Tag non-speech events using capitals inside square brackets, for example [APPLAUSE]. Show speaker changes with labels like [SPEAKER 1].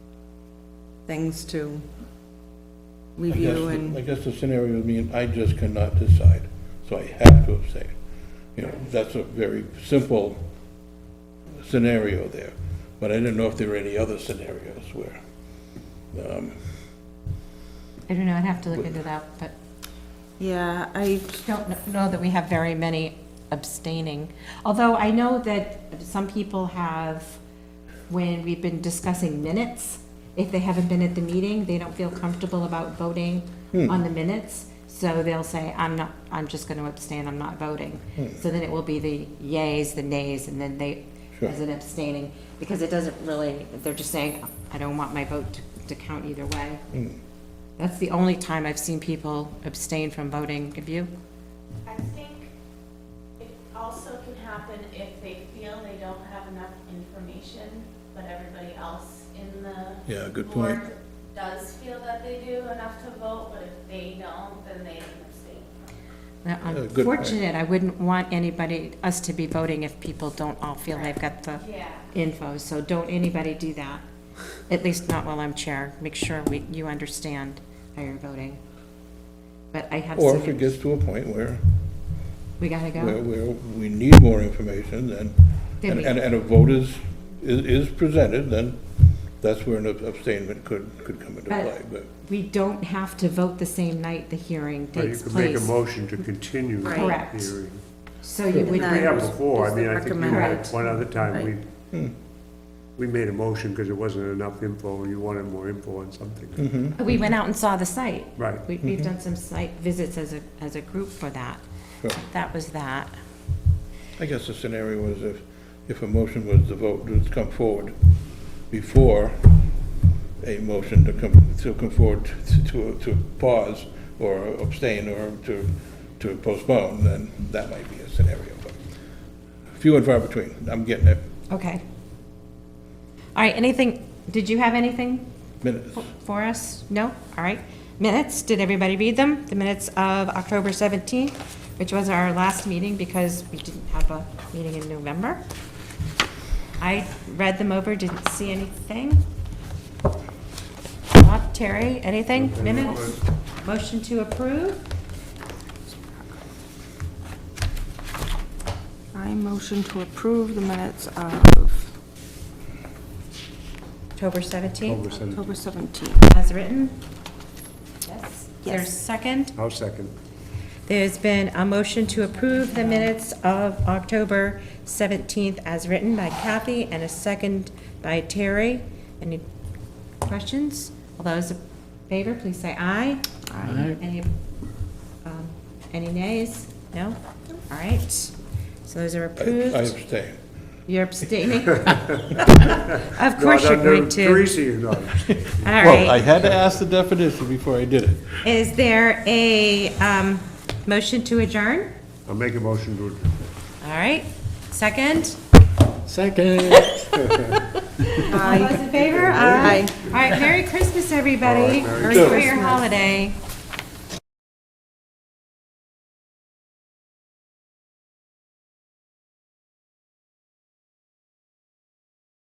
[SPEAKER 1] things to
[SPEAKER 2] I guess,
[SPEAKER 1] review
[SPEAKER 2] the- I
[SPEAKER 1] and,
[SPEAKER 2] guess the scenario, I mean, I just cannot decide, so I have to abstain. You know, that's a very simple scenario there, but I didn't know if there were any other scenarios where, um,
[SPEAKER 3] I don't know, I'd have to look into that, but
[SPEAKER 1] yeah, I,
[SPEAKER 3] don't kn- know that we have very many abstaining. Although I know that some people have, when we've been discussing minutes, if they haven't been at the meeting, they don't feel comfortable about voting on the minutes. So they'll say, I'm not, I'm just going to abstain, I'm not voting. So then it will be the yays, the nays, and then they,
[SPEAKER 2] Sure.
[SPEAKER 3] as an abstaining, because it doesn't really, they're just saying, I don't want my vote to- to count either way. That's the only time I've seen people abstain from voting. Have you?
[SPEAKER 4] I think it also can happen if they feel they don't have enough information, but everybody else in the
[SPEAKER 2] yeah, good point.
[SPEAKER 4] board does feel that they do enough to vote, but if they don't, then they can abstain.
[SPEAKER 3] Now, I'm
[SPEAKER 2] Yeah, good point.
[SPEAKER 3] fortunate, I wouldn't want anybody, us to be voting if people don't all feel they've got the
[SPEAKER 4] Yeah.
[SPEAKER 3] info, so don't anybody do that. At least not while I'm chair. Make sure we, you understand how you're voting. But I have
[SPEAKER 2] Or if it
[SPEAKER 3] seen,
[SPEAKER 2] gets to a point where,
[SPEAKER 3] we gotta
[SPEAKER 2] where,
[SPEAKER 3] go.
[SPEAKER 2] where we need more information, then,
[SPEAKER 3] Then
[SPEAKER 2] and,
[SPEAKER 3] we-
[SPEAKER 2] and and a vote is, is is presented, then that's where an abstainment could, could come into
[SPEAKER 3] But-
[SPEAKER 2] play, but.
[SPEAKER 3] We don't have to vote the same night the hearing
[SPEAKER 5] Well, you
[SPEAKER 3] takes
[SPEAKER 5] could make a
[SPEAKER 3] place.
[SPEAKER 5] motion to continue the hearing.
[SPEAKER 3] Correct. So you
[SPEAKER 2] And
[SPEAKER 3] would,
[SPEAKER 5] We have
[SPEAKER 1] Is-
[SPEAKER 5] before,
[SPEAKER 1] is
[SPEAKER 5] I mean,
[SPEAKER 1] the
[SPEAKER 5] I think you
[SPEAKER 1] recommend-
[SPEAKER 5] had,
[SPEAKER 3] Correct.
[SPEAKER 5] one other
[SPEAKER 1] Right.
[SPEAKER 5] time, we, we made a motion because there wasn't enough info, you wanted more info on something.
[SPEAKER 3] we went out and saw the site.
[SPEAKER 5] Right,
[SPEAKER 3] We, we've done some site visits as a, as a group for that.
[SPEAKER 2] Sure.
[SPEAKER 3] That was that.
[SPEAKER 2] I guess the scenario was if, if a motion was the vote to come forward before a motion to come, to come forward, to- to, to pause or abstain or to, to postpone, then that might be a scenario, but few and far between, I'm getting it,
[SPEAKER 3] Okay. All right, anything, did you have anything
[SPEAKER 2] minutes.
[SPEAKER 3] f- for us? No? All right. Minutes, did everybody read them? The minutes of October 17th, which was our last meeting because we didn't have a meeting in November. I read them over, didn't see anything. Bob, Terry, anything? Minutes? Motion to approve?
[SPEAKER 6] I motion to approve the minutes of
[SPEAKER 3] October 17th,
[SPEAKER 5] over seven,
[SPEAKER 6] October 17th.
[SPEAKER 3] as written? Yes. There's
[SPEAKER 6] Yes.
[SPEAKER 3] second?
[SPEAKER 5] I'll second.
[SPEAKER 3] There's been a motion to approve the minutes of October 17th as written by Kathy and a second by Terry. Any questions? All those in favor, please say aye. Aye. Any, um, any nays? No? All right. So those are
[SPEAKER 2] I I
[SPEAKER 3] approved.
[SPEAKER 2] abstain.
[SPEAKER 3] You're
[SPEAKER 5] [LAUGHS]
[SPEAKER 3] abstaining? [LAUGHS] Of
[SPEAKER 5] No,
[SPEAKER 3] course
[SPEAKER 5] no,
[SPEAKER 3] you're
[SPEAKER 5] no,
[SPEAKER 3] going to.
[SPEAKER 5] Teresa, you know.
[SPEAKER 3] All right.
[SPEAKER 2] had to ask the definition before I did it.
[SPEAKER 3] Is there a um, motion to adjourn?
[SPEAKER 5] I'll make a motion to,
[SPEAKER 3] All right. Second? [LAUGHS]
[SPEAKER 7] Second.
[SPEAKER 3] All those in favor? Aye. All right, Merry Christmas, everybody.
[SPEAKER 5] Merry
[SPEAKER 3] Or enjoy your holiday.